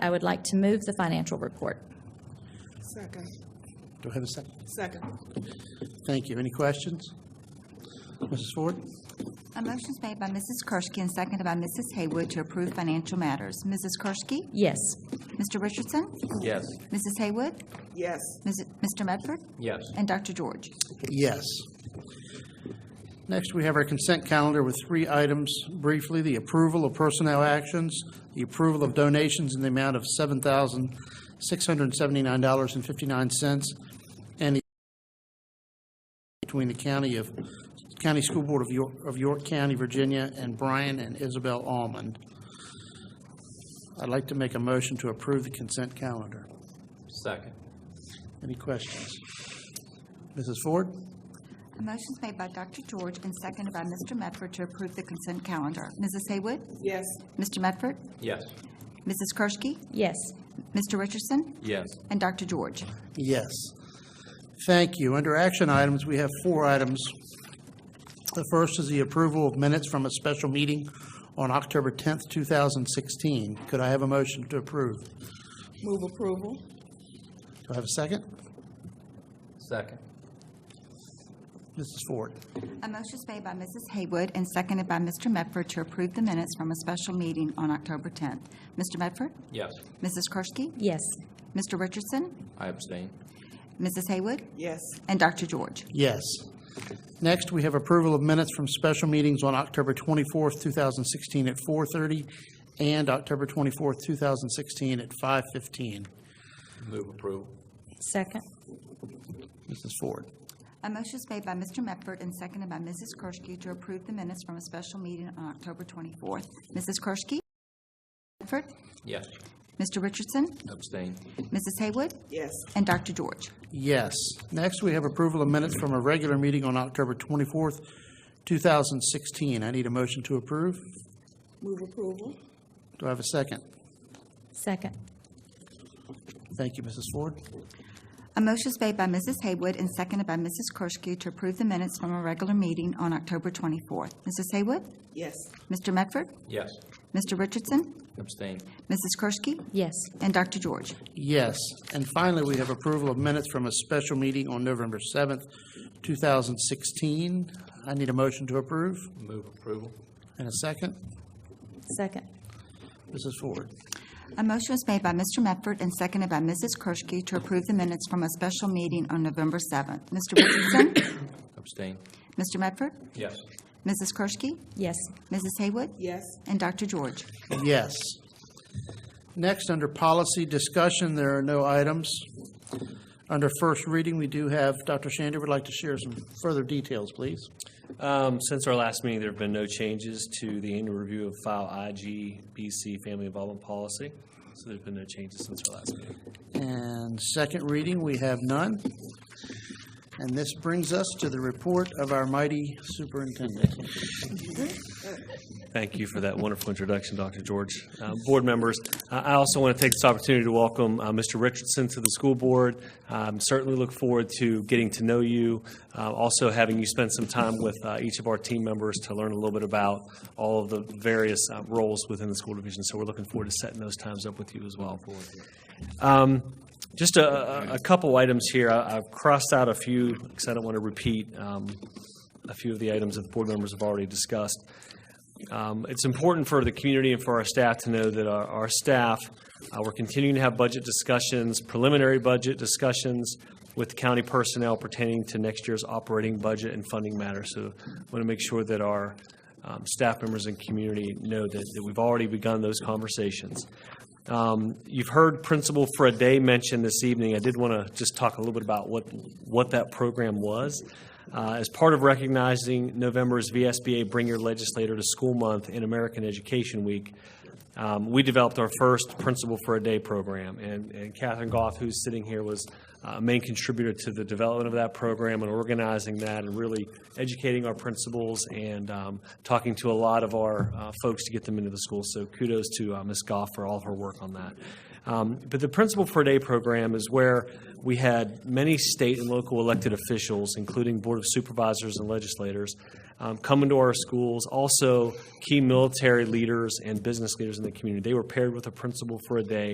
I would like to move the financial report. Second. Do I have a second? Second. Thank you. Any questions? Mrs. Ford? A motion is made by Mrs. Kershke and seconded by Mrs. Haywood to approve financial matters. Mrs. Kershke? Yes. Mr. Richardson? Yes. Mrs. Haywood? Yes. Ms- Mr. Medford? Yes. And Dr. George? Yes. Next, we have our consent calendar with three items briefly. The approval of personnel actions, the approval of donations in the amount of $7,679.59, and the between the county of, County School Board of York, of York County, Virginia, and Brian and Isabel Almond. I'd like to make a motion to approve the consent calendar. Second. Any questions? Mrs. Ford? A motion is made by Dr. George and seconded by Mr. Medford to approve the consent calendar. Mrs. Haywood? Yes. Mr. Medford? Yes. Mrs. Kershke? Yes. Mr. Richardson? Yes. And Dr. George? Yes. Thank you. Under action items, we have four items. The first is the approval of minutes from a special meeting on October 10th, 2016. Could I have a motion to approve? Move approval. Do I have a second? Second. Mrs. Ford. A motion is made by Mrs. Haywood and seconded by Mr. Medford to approve the minutes from a special meeting on October 10th. Mr. Medford? Yes. Mrs. Kershke? Yes. Mr. Richardson? I abstain. Mrs. Haywood? Yes. And Dr. George? Yes. Next, we have approval of minutes from special meetings on October 24th, 2016 at 4:30 and October 24th, 2016 at 5:15. Move approval. Second. Mrs. Ford. A motion is made by Mr. Medford and seconded by Mrs. Kershke to approve the minutes from a special meeting on October 24th. Mrs. Kershke? Medford? Yes. Mr. Richardson? Abstain. Mrs. Haywood? Yes. And Dr. George? Yes. Next, we have approval of minutes from a regular meeting on October 24th, 2016. I need a motion to approve. Move approval. Do I have a second? Second. Thank you, Mrs. Ford. A motion is made by Mrs. Haywood and seconded by Mrs. Kershke to approve the minutes from a regular meeting on October 24th. Mrs. Haywood? Yes. Mr. Medford? Yes. Mr. Richardson? Abstain. Mrs. Kershke? Yes. And Dr. George? Yes. And finally, we have approval of minutes from a special meeting on November 7th, 2016. I need a motion to approve Move approval. and a second. Second. Mrs. Ford. A motion was made by Mr. Medford and seconded by Mrs. Kershke to approve the minutes from a special meeting on November 7th. Mr. Richardson? Abstain. Mr. Medford? Yes. Mrs. Kershke? Yes. Mrs. Haywood? Yes. And Dr. George? Yes. Next, under policy discussion, there are no items. Under first reading, we do have, Dr. Shander would like to share some further details, please. Um, Since our last meeting, there have been no changes to the annual review of file IGBC Family Involvement Policy. So there's been no changes since our last meeting. And second reading, we have none. And this brings us to the report of our mighty superintendent. Thank you for that wonderful introduction, Dr. George. Uh, Board members, I I also want to take this opportunity to welcome uh, Mr. Richardson to the school board. Um, Certainly look forward to getting to know you, uh, also having you spend some time with uh, each of our team members to learn a little bit about all of the various uh, roles within the school division. So we're looking forward to setting those times up with you as well. Um, Just a a- a couple items here. I- I've crossed out a few because I don't want to repeat um, a few of the items that the board members have already discussed. Um, It's important for the community and for our staff to know that our our staff, uh, we're continuing to have budget discussions, preliminary budget discussions with county personnel pertaining to next year's operating budget and funding matters. So want to make sure that our um, staff members and community know that that we've already begun those conversations. Um, You've heard Principal for a Day mentioned this evening. I did want to just talk a little bit about what, what that program was. Uh, As part of recognizing November's VSBA Bring Your Legislator to School Month and American Education Week, um, we developed our first Principal for a Day program. And and Catherine Goff, who's sitting here, was uh, a main contributor to the development of that program and organizing that and really educating our principals and um, talking to a lot of our uh, folks to get them into the school. So kudos to uh, Ms. Goff for all of her work on that. Um, But the Principal for a Day program is where we had many state and local elected officials, including Board of Supervisors and legislators, um, come into our schools, also key military leaders and business leaders in the community. They were paired with a principal for a day